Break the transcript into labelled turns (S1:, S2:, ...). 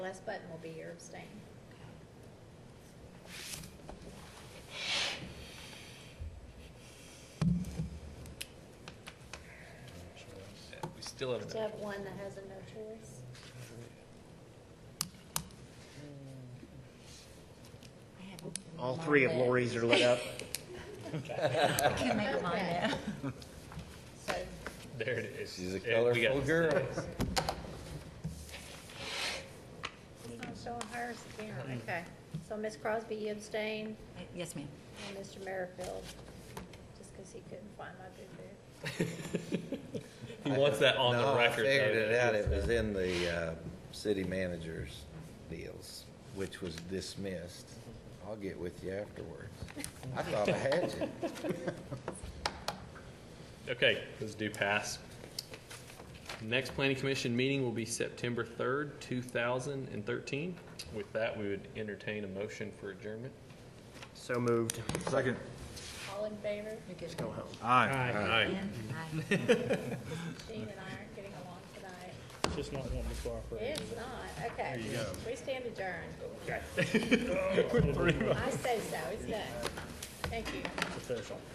S1: West Button will be your abstain.
S2: Yeah, We still have.
S1: Do you have one that has a no choice?
S3: All three of Lori's are lit up.
S4: I can't make mine
S1: Okay.
S4: now.
S1: So,
S2: There it is.
S5: She's a
S2: Yeah, we got
S5: colorful
S2: it.
S5: girl.
S1: it's not showing hers again, okay. So Ms. Crosby, you abstain,
S4: Yes, ma'am.
S1: and Mr. Merrifield, just because he couldn't find my boo-boo.
S2: He wants that on
S5: No,
S2: the record.
S5: I figured
S2: though.
S5: it out. It was in the uh, city manager's deals, which was dismissed. I'll get with you afterwards. I thought I had you.
S2: Okay, those do pass. Next planning commission meeting will be September third, two thousand and thirteen. With that, we would entertain a motion for adjournment.
S3: So moved.
S6: Second.
S1: All in favor?
S4: You're good.
S3: Go home.
S6: Aye.
S2: Aye.
S4: And I-
S1: Gene and I aren't getting along tonight.
S7: It's just not wanting to cooperate.
S1: It's not, okay. We stand adjourned.
S7: Quit three.
S1: I say so, it's done. Thank you.
S7: Official.